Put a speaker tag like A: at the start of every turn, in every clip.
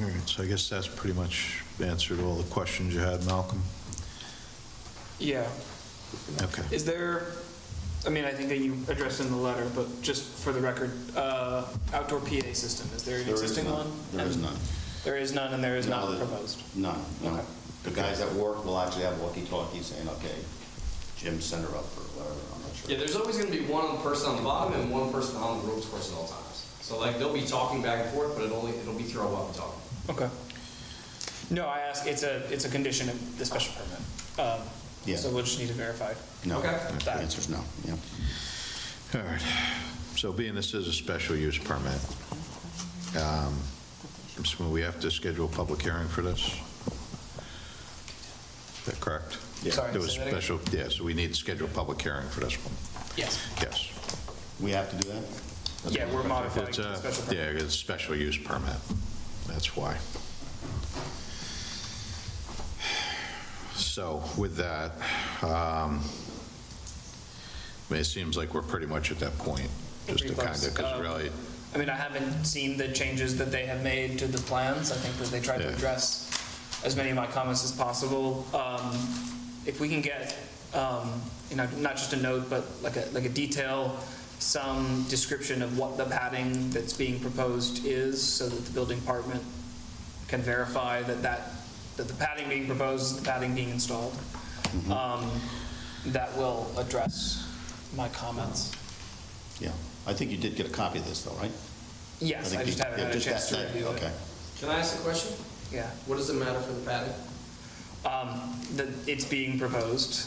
A: All right, so I guess that's pretty much answered all the questions you had, Malcolm?
B: Yeah.
A: Okay.
B: Is there, I mean, I think that you addressed in the letter, but just for the record, uh, outdoor PA system, is there an
C: There is
B: existing
C: none.
B: one?
C: There is
B: And
C: none.
B: There is none, and there is
C: No,
B: not
C: there-
B: proposed.
C: None, no.
B: Okay.
C: The guys at work will actually have walkie-talkies saying, okay, Jim, send her up or whatever, I'm not sure.
D: Yeah, there's always going to be one person on the bottom and one person on the ropes person at all times. So like they'll be talking back and forth, but it only it'll be through a weapon talking.
B: Okay. No, I ask, it's a, it's a condition of the special permit. Um,
C: Yeah.
B: So we'll just need to verify.
C: No,
D: Okay.
C: the answer's no, yeah.
A: All right, so being this is a special use permit, um, so we have to schedule a public hearing for this? Is that correct?
B: Yeah. Sorry,
A: There was
B: say that again?
A: special, yeah, so we need to schedule a public hearing for this one,
B: Yes.
A: yes.
C: We have to do that?
B: Yeah, we're modifying
A: It's
B: to the
A: a,
B: special
A: yeah,
B: permit.
A: it's a special use permit, that's why. So with that, um, I mean, it seems like we're pretty much at that point, just to
B: Pretty
A: kind
B: close.
A: of, because
B: Um,
A: really,
B: I mean, I haven't seen the changes that they have made to the plans. I think that they tried to
A: Yeah.
B: address as many of my comments as possible. Um, If we can get, um, you know, not just a note, but like a, like a detail, some description of what the padding that's being proposed is, so that the building department can verify that that, that the padding being proposed, is the padding being installed,
C: Mm-hmm.
B: Um, that will address my comments.
C: Yeah. I think you did get a copy of this though, right?
B: Yes, I
C: think
B: just
C: you-
B: haven't
C: yeah,
B: had a
C: just
B: chance to
C: that- that-
B: review it.
C: Okay.
D: Can I ask a question?
B: Yeah.
D: What does it matter for the padding?
B: um, that it's being proposed.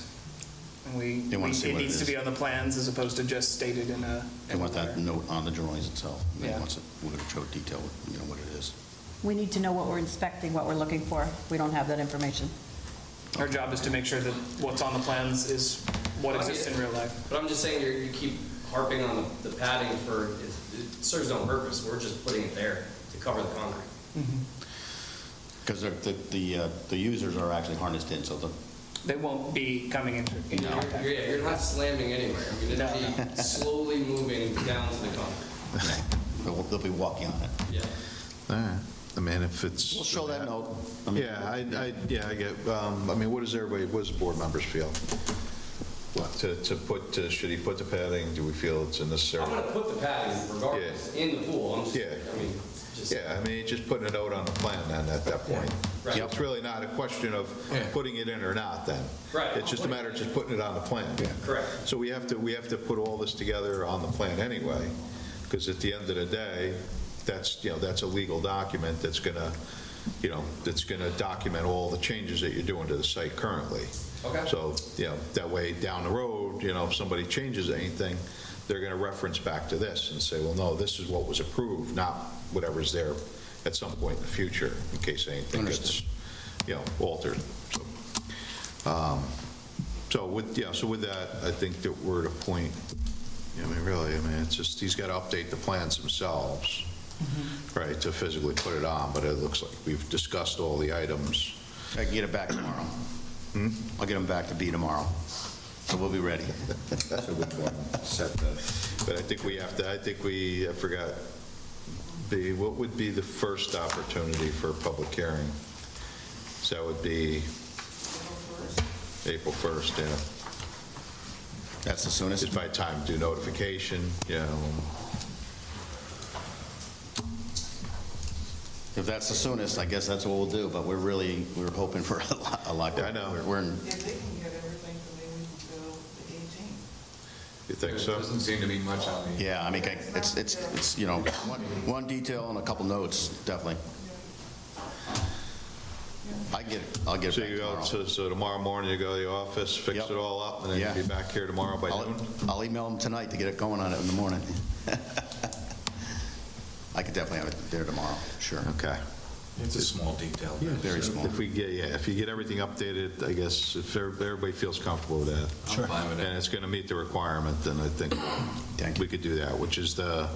B: And we,
C: They
B: we-
C: wanna see
B: it
C: what it
B: needs to
C: is.
B: be on the plans as opposed to just stated in a.
C: They want that
B: in a letter.
C: note on the drawings itself. They
B: Yeah.
C: want it, we're going to show detail, you know, what it is.
E: We need to know what we're inspecting, what we're looking for. We don't have that information.
B: Our job is to make sure that what's on the plans is what
D: I mean-
B: exists in real life.
D: But I'm just saying you're, you keep harping on the, the padding for it, it serves no purpose. We're just putting it there to cover the concrete.
C: Because the, the, uh, the users are actually harnessed in, so the,
B: They won't be coming into. into
D: You're-
B: contact.
D: You're, yeah, you're not slamming anywhere. I mean,
B: No,
D: it'll be slowly moving down to the concrete.
C: they'll they'll be walking on it.
D: Yeah.
A: all right, I mean, if it's.
C: We'll show that note. I mean,
A: Yeah, I, I, yeah, I get, um, I mean, what does everybody, what does the board members feel? What, to, to put, to- should he put the padding, do we feel it's necessary?
D: I'm gonna put the padding regardless in the pool. I'm just,
A: Yeah.
D: I mean, just.
A: Yeah, I mean, just putting a note on the plan then at that point.
D: Right.
A: So It's really not a question of putting it in or not then.
D: Right.
A: It's just a matter of just putting it on the plan.
D: Correct.
A: So we have to, we have to put all this together on the plan anyway, because at the end of the day, that's, you know, that's a legal document that's gonna, you know, that's gonna document all the changes that you're doing to the site currently.
D: Okay.
A: So, you know, that way down the road, you know, if somebody changes anything, they're gonna reference back to this and say, well, no, this is what was approved, not whatever's there at some point in the future, in case anything gets,
C: Understood.
A: you know, altered. So so with, yeah, so with that, I think that we're at a point, I mean, really, I mean, it's just, he's got to update the plans themselves, right, to physically put it on, but it looks like we've discussed all the items.
C: I can get it back tomorrow.
A: Hmm?
C: I'll get them back to B tomorrow, so we'll be ready.
A: But I think we have to, I think we, I forgot, the, what would be the first opportunity for a public hearing? So that would be April 1st, yeah.
C: That's the soonest.
A: It's by time to do notification, you know,
C: If that's the soonest, I guess that's what we'll do, but we're really, we're hoping for a lot, a lot.
A: Yeah, I know.
C: We're- We're in,
F: If they can get everything, then they would go the 18th.
A: you think
G: There
A: so?
G: doesn't seem to be much on the
C: yeah, I mean, I- it's, it's, it's, you know, one, one detail and a couple notes, definitely. I get, it. I'll get
A: So
C: it
A: you go,
C: back
A: so
C: tomorrow.
A: so tomorrow morning, you go to the office, fix
C: Yep.
A: it all up, and then you'll
C: Yeah.
A: be back here tomorrow by noon?
C: I'll, I'll email them tonight to get it going on it in the morning. I could definitely have it there tomorrow, sure.
A: Okay.
G: It's a small detail.
C: Very small.
A: If we get, yeah, if you get everything updated, I guess, if every- everybody feels comfortable with that.
G: Sure. I'm fine with that.
A: And it's going to meet the requirement, then I think
C: Thank
A: we
C: you.
A: could do that, which is the,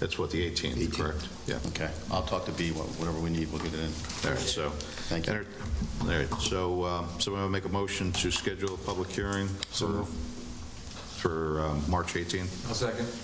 A: that's what, the 18th,
C: 18th.
A: correct? Yeah.
C: Okay, I'll talk to B, wha- whatever we need, we'll get it in.
A: All right, so.
C: Thank you.
A: Enter- All right, so, um, someone want to make a motion to schedule a public hearing for, for um, March 18th?
G: I'll second.